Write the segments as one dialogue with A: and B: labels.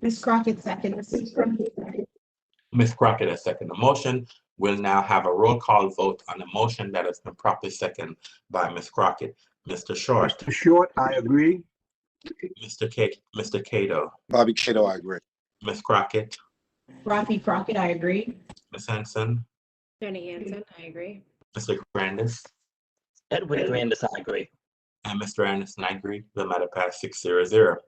A: Ms. Crockett seconds.
B: Ms. Crockett has seconded the motion. We'll now have a roll call vote on the motion that has been properly seconded by Ms. Crockett. Mr. Short,
C: Mr. Short, I agree.
B: Mr. K, Mr. Cato,
D: Bobby Cato, I agree.
B: Ms. Crockett,
A: Rafi Crockett, I agree.
B: Ms. Henson,
E: Jenny Hansen, I agree.
B: Mr. Grandis,
F: Edwin Grandis, I agree.
B: and Mr. Anderson, I agree. The matter passed six zero zero.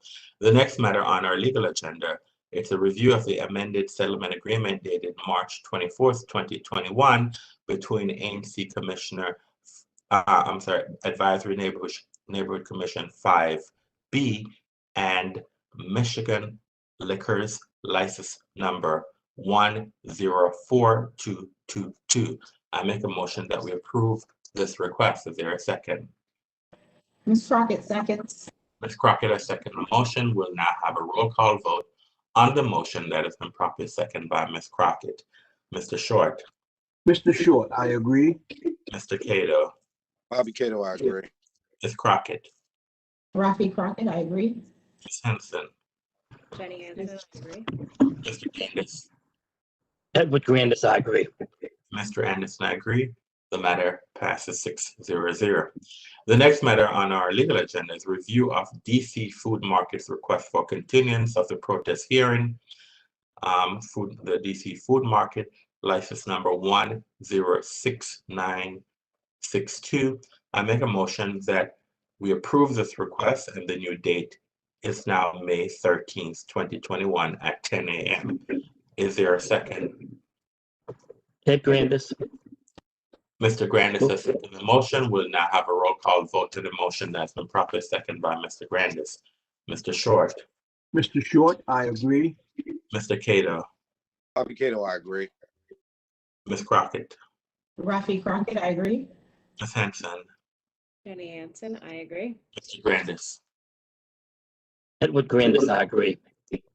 B: The next matter on our legal agenda, it's a review of the amended settlement agreement dated March twenty-fourth, twenty twenty-one between ANC Commissioner, uh, I'm sorry, Advisory Neighborhood, Neighborhood Commission five B and Michigan Liquors License Number one zero four two two two. I make a motion that we approve this request. Is there a second?
A: Ms. Crockett seconds.
B: Ms. Crockett has seconded the motion. We'll now have a roll call vote on the motion that has been properly seconded by Ms. Crockett. Mr. Short,
C: Mr. Short, I agree.
B: Mr. Cato,
D: Bobby Cato, I agree.
B: Ms. Crockett,
A: Rafi Crockett, I agree.
B: Ms. Henson,
E: Jenny Hansen, I agree.
B: Mr. Candace,
F: Edward Grandis, I agree.
B: Mr. Anderson, I agree. The matter passes six zero zero. The next matter on our legal agenda is review of DC Food Market's request for continuance of the protest hearing. Um, food, the DC Food Market license number one zero six nine six two. I make a motion that we approve this request and the new date is now May thirteenth, twenty twenty-one at ten AM. Is there a second?
F: Ed Grandis,
B: Mr. Grandis has seconded the motion. We'll now have a roll call vote to the motion that's been properly seconded by Mr. Grandis. Mr. Short,
C: Mr. Short, I agree.
B: Mr. Cato,
D: Bobby Cato, I agree.
B: Ms. Crockett,
A: Rafi Crockett, I agree.
B: Ms. Hanson,
E: Jenny Hansen, I agree.
B: Mr. Grandis,
F: Edward Grandis, I agree.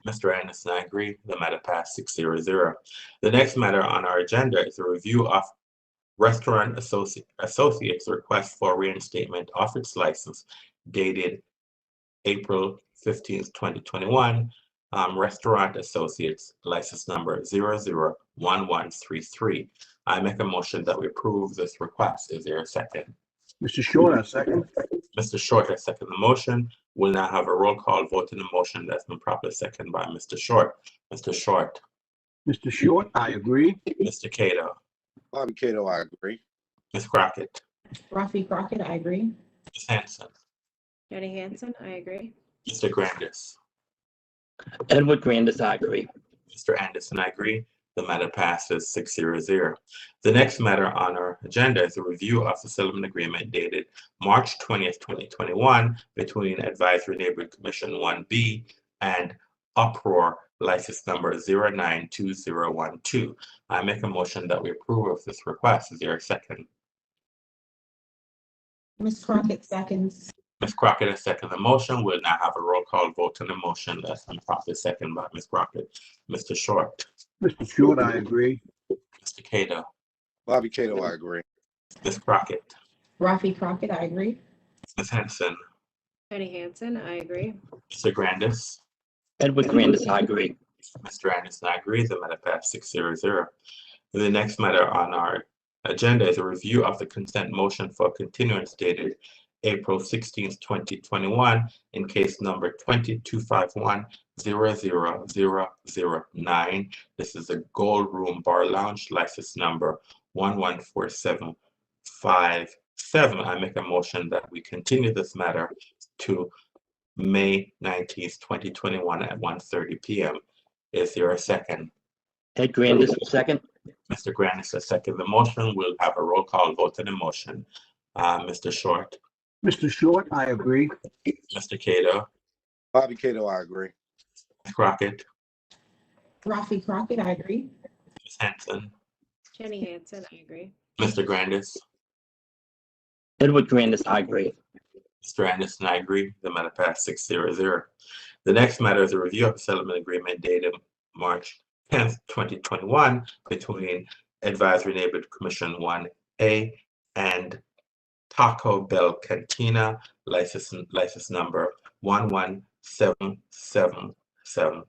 B: Mr. Anderson, I agree. The matter passed six zero zero. The next matter on our agenda is a review of Restaurant Associ- Associates' request for reinstatement of its license dated April fifteenth, twenty twenty-one. Um, Restaurant Associates license number zero zero one one three three. I make a motion that we approve this request. Is there a second?
C: Mr. Short, I second.
B: Mr. Short has seconded the motion. We'll now have a roll call vote in the motion that's been properly seconded by Mr. Short. Mr. Short,
C: Mr. Short, I agree.
B: Mr. Cato,
D: Bobby Cato, I agree.
B: Ms. Crockett,
A: Rafi Crockett, I agree.
B: Ms. Hanson,
E: Jenny Hansen, I agree.
B: Mr. Grandis,
F: Edward Grandis, I agree.
B: Mr. Anderson, I agree. The matter passes six zero zero. The next matter on our agenda is a review of the settlement agreement dated March twentieth, twenty twenty-one between Advisory Neighborhood Commission one B and Uproar License Number zero nine two zero one two. I make a motion that we approve of this request. Is there a second?
A: Ms. Crockett seconds.
B: Ms. Crockett has seconded the motion. We'll now have a roll call vote on the motion that's been properly seconded by Ms. Crockett. Mr. Short,
C: Mr. Short, I agree.
B: Mr. Cato,
D: Bobby Cato, I agree.
B: Ms. Crockett,
A: Rafi Crockett, I agree.
B: Ms. Henson,
E: Jenny Hansen, I agree.
B: Mr. Grandis,
F: Edward Grandis, I agree.
B: Mr. Anderson, I agree. The matter passed six zero zero. The next matter on our agenda is a review of the consent motion for continuance dated April sixteenth, twenty twenty-one, in case number twenty-two five one zero zero zero zero nine. This is a Gold Room Bar Lounge license number one one four seven five seven. I make a motion that we continue this matter to May nineteenth, twenty twenty-one at 1:30 P M. Is there a second?
F: Ed Grandis, second.
B: Mr. Grandis has seconded the motion. We'll have a roll call vote on the motion. Uh, Mr. Short,
C: Mr. Short, I agree.
B: Mr. Cato,
D: Bobby Cato, I agree.
B: Ms. Crockett,
A: Rafi Crockett, I agree.
B: Ms. Hanson,
E: Jenny Hansen, I agree.
B: Mr. Grandis,
F: Edward Grandis, I agree.
B: Mr. Anderson, I agree. The matter passed six zero zero. The next matter is a review of settlement agreement dated March tenth, twenty twenty-one between Advisory Neighborhood Commission one A and Taco Bell Cantina, license, license number one one seven seven seven